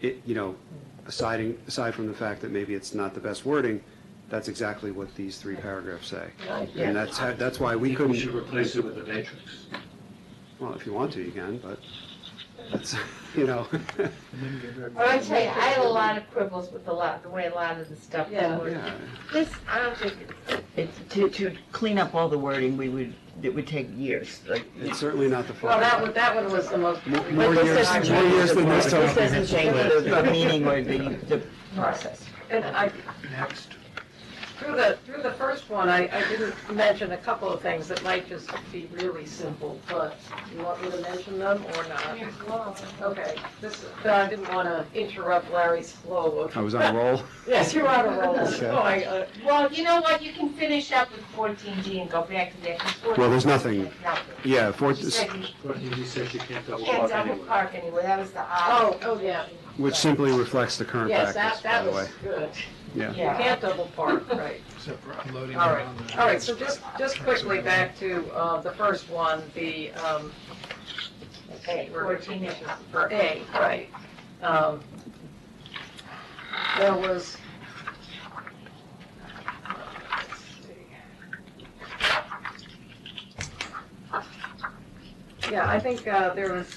it, you know, aside, aside from the fact that maybe it's not the best wording, that's exactly what these three paragraphs say. Yeah. And that's, how- that's why we I think we should couldn't, replace it with a matrix. well, if you want to, you can, but that's, you know, Well, I tell you, I had a lot of quibbles with a lot, the way a lot of the stuff Yeah. was worded. yeah. This, I don't think, It's, to, to clean up all the wording, we would, it would take years, like. It's certainly not the well, that fault. one, that one was the most. More- But more this years- doesn't more change years the than this word. time. This doesn't change the, the meaning or the, the process. And I, Next. through the, through the first one, I, I didn't mention a couple of things that might just be really simple, but you want me to mention them or not? Okay, this, but I didn't want to interrupt Larry's flow of. I was on a roll. Yes, you're on a roll, Okay. so I, uh, Well, you know what, you can finish up with fourteen G and go back to that. 'cause Well, there's 14G nothing- is nothing. Yeah, for, She said you But he says you can't double can't park double anywhere. park anywhere, that was the odd, oh, oh, yeah, which simply reflects the current yes, that, practice, by that the way. was good. You yeah. can't double park, right. Except for unloading. All right, all right, so just, just quickly back to uh, the first one, the, um, Okay, fourteen inches. for A, right. Um, There was. let's see. Yeah, I think uh, there was,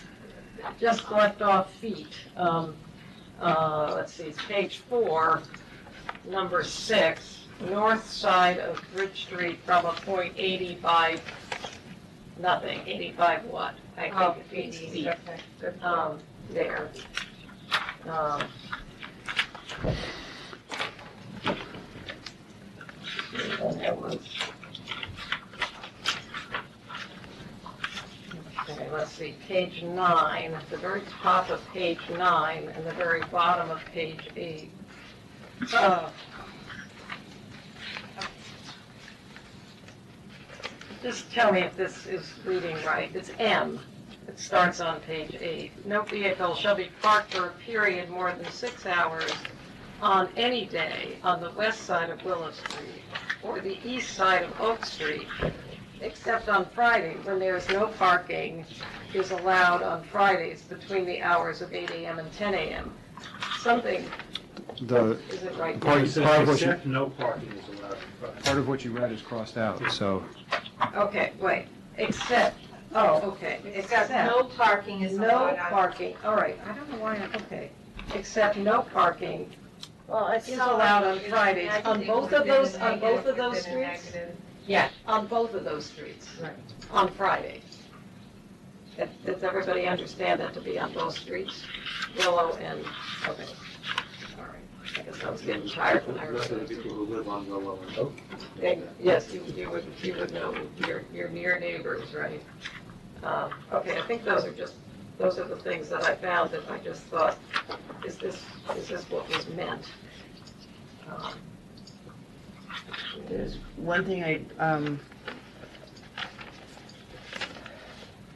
just left off feet. Um, uh, Let's see, it's page four, number six, north side of Bridge Street from a point 85, nothing, 85 what? I Oh, think it's feet. feet, okay, good. um, there. Um, Okay, let's see, page nine, at the very top of page nine and the very bottom of page eight. Uh, Just tell me if this is reading right. It's M. It starts on page eight. No vehicle shall be parked for a period more than six hours on any day on the west side of Willow Street or the east side of Oak Street, except on Friday, when there is no parking is allowed on Fridays between the hours of eight AM and ten AM. Something The, isn't right. Park- He park says what you- except no parking is allowed. in front. part of what you read is crossed out, so Okay, wait, except, oh, okay, Except no parking is No allowed on. parking, all right, I don't know why, I- okay, except no parking Well, it's is not- allowed on it's a Fridays, on negative, it both would've of those- been a on both of negative, those it would've been a streets? negative. on both of those streets. Right. On Friday. That- Does everybody understand that to be on both streets, Willow and, okay, all right. I guess I was getting tired when I The rest of the read it. people who live on Willow and Oak. They- Yes, you you would, you would know, your your near neighbors, right? Um, Okay, I think those are just, those are the things that I found that I just thought, is this, is this what was meant? Um, There's one thing I, um,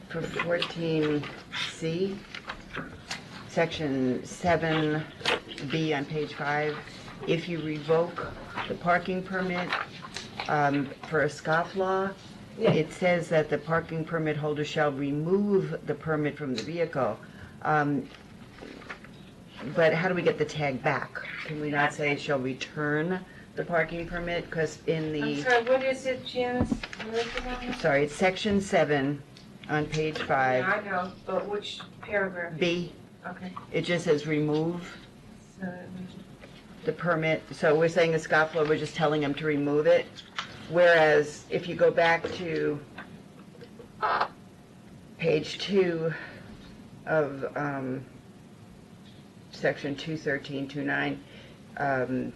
for fourteen C, section seven B on page five, if you revoke the parking permit, um, for a scofflaw, Yeah. it says that the parking permit holder shall remove the permit from the vehicle. Um, But how do we get the tag back? Can we not say shall return the parking permit? Because in the. I'm sorry, what is it, Janice? What is it on? Sorry, it's section seven on page Yeah, five, I know, but which paragraph? B. Okay. It just says remove So that means- the permit, so we're saying a scofflaw, we're just telling them to remove it. Whereas if you go back to page two of, um, section two thirteen, two nine, um,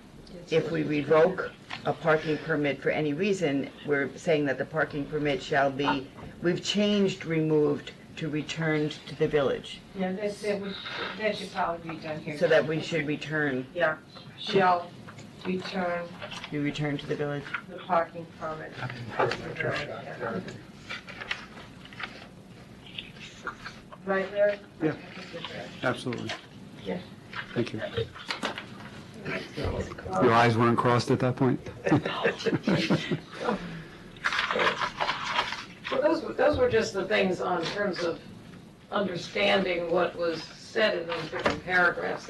if we revoke a parking permit for any reason, we're saying that the parking permit shall be, we've changed removed to returned to the village, Yeah, that's, that would, that should probably be done here. so that we should return, Shall return be returned to the village. the parking permit. Right, Larry? Yeah. absolutely. Yeah. Thank you. Your eyes weren't crossed at that point? Well, those, were- those were just the things on terms of understanding what was said in those different paragraphs